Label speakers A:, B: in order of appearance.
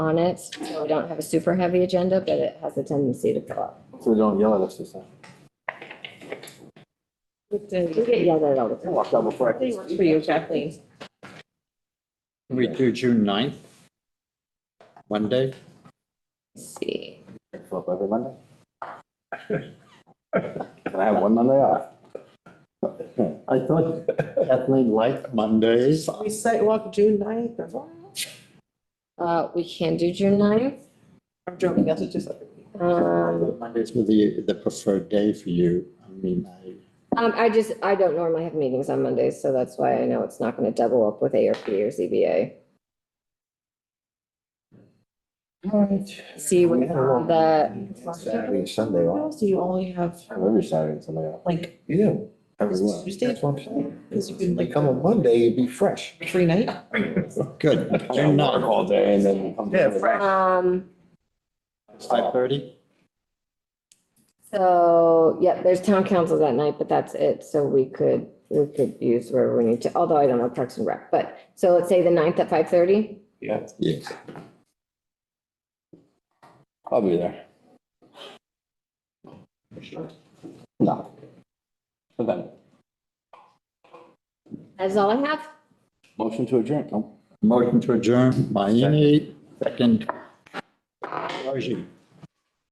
A: on it, so we don't have a super heavy agenda, but it has a tendency to fill up.
B: So they don't yell at us this time.
C: Good
A: We
C: day.
A: get yelled at all the time.
B: Walked out before I
C: They
B: could
C: work
B: speak.
C: for you, Kathleen.
D: We do June ninth? Monday?
A: Let's See,
B: Show up every Monday. Can I have one Monday off?
D: I thought Kathleen liked Mondays.
C: We sidewalk June ninth or what?
A: uh, we can do June ninth.
C: I'm joking, that's just like.
A: Um,
D: Mondays were the, the preferred day for you. I mean, I,
A: um, I just, I don't normally have meetings on Mondays, so that's why I know it's not gonna double up with ARP or ZBA. See what the,
B: Saturday and Sunday off.
C: So you only have
B: I have every Saturday and Sunday off.
C: like
E: You do.
B: Every one.
C: Tuesday?
E: That's what I'm saying.
C: Cause you can
E: They
C: like
E: come on Monday, you'd be fresh.
C: free night?
D: good,
B: I
D: June
B: work
D: ninth,
B: all day and then come.
E: Yeah, fresh.
A: um,
D: five thirty?
A: so, yeah, there's town council that night, but that's it, so we could, we could use wherever we need to, although I don't know Parks and Rec, but, so let's say the ninth at five thirty?
B: Yeah,
D: Yes.
B: I'll be there. No. But then,
A: That's all I have.
B: motion to adjourn, no?
D: Motion to adjourn, Mayne, second. Raji.